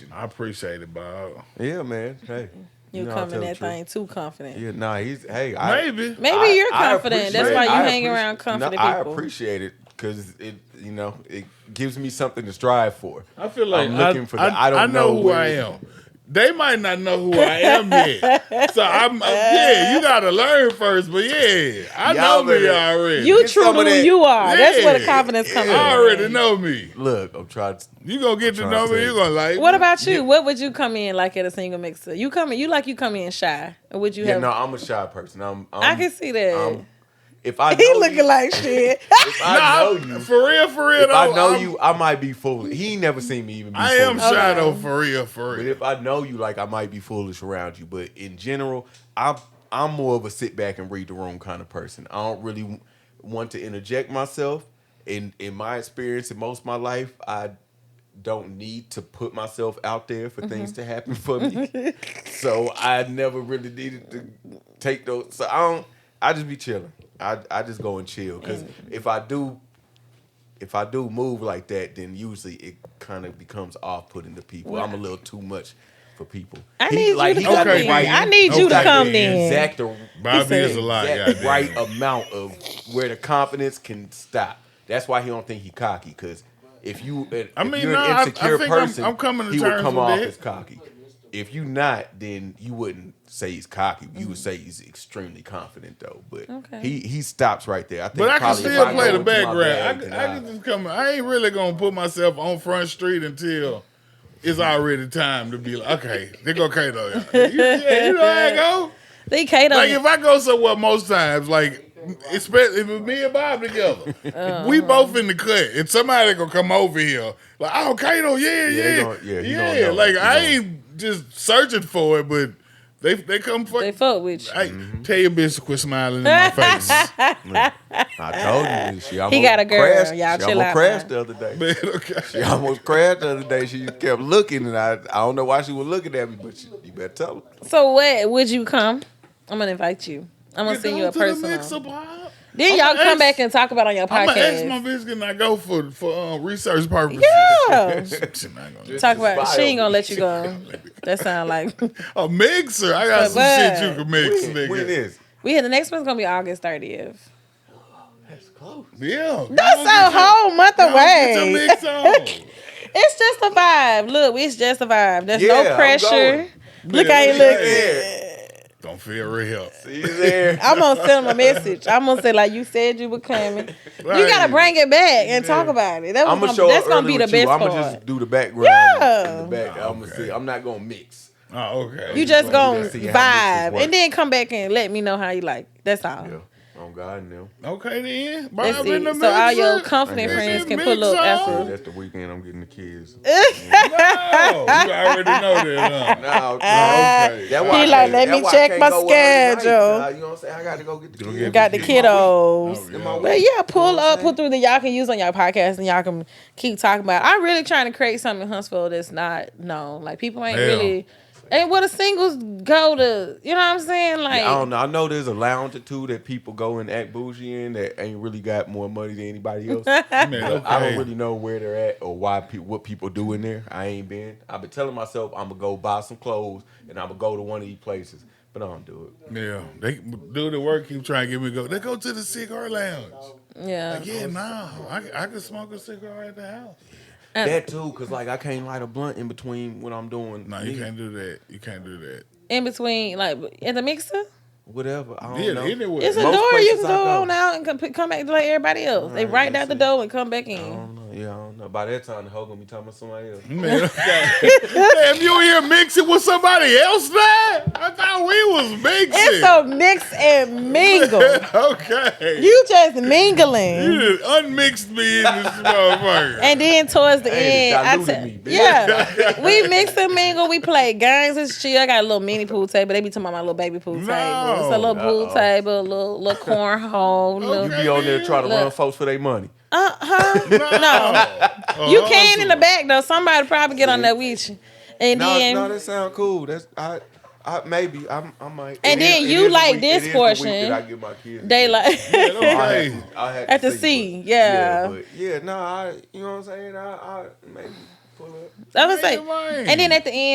I appreciate it, Bob. Yeah, man. Hey. You know I coming tell the that truth. thing too confident. Yeah, nah, he's hey, I Maybe. Maybe I- you're I confident. That's appreciate- why you I hang appreci- around confident no, I people. appreciate it because it, you know, it gives me something to strive for. I feel like I'm looking I, for I, that. I don't I know, who where- I am. They might not know who I am yet. so I'm uh, yeah, you gotta learn first, but yeah, I Y'all know me better- already. you Get true some to of who that- you are. That's where the Yeah, confidence comes I in. already know me. Look, I'm trying. To, You gonna get to I'm know trying to me, tell you you. gonna like What me. about you? What would you come in like at a single mixer? You come in, you like you come in shy, or would you yeah, have? no, I'm a shy person. I'm. I'm I can see that. I'm- if I know he you- looking like shit. if Nah, I know I'm- you. For real, for real If though. I know I'm- you, I might be foolish. He ain't never seen me even. Be I am foolish. shy Okay. though, for real, for But real. if I know you, like I might be foolish around you. But in general, I'm I'm more of a sit back and read the room kind of person. I don't really w- want to interject myself. In in my experience, in most of my life, I don't need to put myself out there for things to happen Mm-hmm. for me. so I never really needed to take those. So I don't. I just be chilling. I I just go and chill because if I do. If I do move like that, then usually it kind of becomes off-putting to people. I'm a little too much for people. I need you to got come the in. right- I need you he he to got come the in. Exact, Bobby said is a lie, exact goddamn. right amount of where the confidence can stop. That's why he don't think he cocky. Because if you, I I mean, mean, you're no, I- I an insecure think I'm- person, I'm coming to he would terms come with off that. as cocky. If you not, then you wouldn't say he's cocky. You would say he's extremely confident though. But Mm-hmm. Okay. he he stops right there. I think But I can probably if still I play go the into my background. I, bag, can- then I can just come. I ain't really gonna put myself on Front Street until it's already time to be like, okay, they go Kato. You, yeah, you know how I go. They Kato. Like if I go somewhere most times, like especially if it's me and Bob together, Uh-huh. we both in the cut, and somebody gonna come over here like, oh Kato, yeah, Yeah, they yeah, gonna- yeah, he yeah. gonna know. Like He I gonna- ain't just searching for it, but they they come for. they fuck with you. Hey, Mm-hmm. tell your bitch to quit smiling in my face. I told you this. She almost got a girl. Crashed. she Y'all chill almost out, crashed man. the other day. Man, okay. She almost crashed the other day. She kept looking, and I, I don't know why she was looking at me, but she, you better tell her. So what would you come? I'm gonna invite you. I'm gonna Get send down you a to The mixer, personal. Bob. Then I'ma y'all come ask- back and talk about it on your I'm gonna ask my podcast. bitch can I go for for uh, research purposes. Yeah. She not gonna- Talk about Just she ain't gonna let you smile. go. That sound like a mixer. I got But some bud. shit you can mix, When, nigga. when is? we had the next one's gonna be August 30th. That's close. Yeah, That's a whole month Get your away. mix on. It's just a vibe. Look, it's just a vibe. There's Yeah, no I'm pressure. going. Look, Yeah, I ain't yeah. looking. there. Don't feel real. He's there. I'm gonna send him a message. I'm gonna say like you said you were coming. You Right. gotta bring it back and talk about it. That was I'm gonna gonna, show that's up gonna early be the with you. best I'm part. gonna just do the background. Yeah. in the back. Oh, I'm gonna okay. see. I'm not gonna mix. Oh, okay. you just gonna See how this vibe works. and then come back and let me know how you like. it. That's all. Yeah. On Oh, God now. Uh-huh. okay then. Bob That's in it. the So all your mixer? confident Okay. friends can Mix pull up on. after. That's the weekend I'm getting the kids. Oh, you already know that. Huh? No, Okay. That's He I like, can't- let that's me why I check can't my go out at night. schedule. Nah, you know what I'm saying? I gotta go get the Don't kids. get Got the Oh, kiddos. yeah. My But week. yeah, pull what I'm up, pull saying? through that y'all can use on y'all podcast and y'all can keep talking about. It. I'm really trying to create something in Huntsville that's not known. Like people ain't Yeah. really. And what the singles go to, you know what I'm saying? Like I don't know. I know there's a lounge or two that people go and act bougie in that ain't really got more money than anybody else. But Man, I okay. don't really know where they're at or why pe- what people do in there. I ain't been. I've been telling myself I'm gonna go buy some clothes and I'm gonna go to one of these places, but I don't do it. Yeah, they do the work. Keep trying to get me to go. They go to the cigar lounge. Yeah. Yeah, no, I, I could smoke a cigar at the house. Uh, that too, cause like I can't light a blunt in between what I'm doing. No, you Me, can't do that. You can't do that. In between, like at the mixer, Whatever. I don't Yeah, know. anyway. Oh, it's a Most door you places can I go go. on out and come, come back like everybody else. they Alright, right out the that's door and come back in. I don't know. Yeah, I don't know. By that time, the hoe gonna be talking to somebody else. Man, damn, you here mixing with somebody else now? I thought we was It's mixing. a mix and mingle. okay. you just mingling. You done unmixed me in this motherfucker. And then towards the Hey, it end, I diluted tell- me, bitch. yeah, we mix and mingle. We play games and shit. I got a little mini pool table. They be talking about my little baby pool No. table. It's a little pool Uh-oh. table, a little little cornhole. Okay. You Little, be on there trying to Look. run folks for their money. uh huh. No. Oh, You can in the back though. Somebody probably get on that with you, and No, then no, that sound cool. That's I, I maybe I'm, I might. And It then it you the like week- this it is the week portion. that I give my kids. they like. I Okay. had, I had At the see, sea, but- yeah. but yeah, no, I, you know what I'm saying. I, I maybe pull up. I was Ain't like, no way. and then at the end.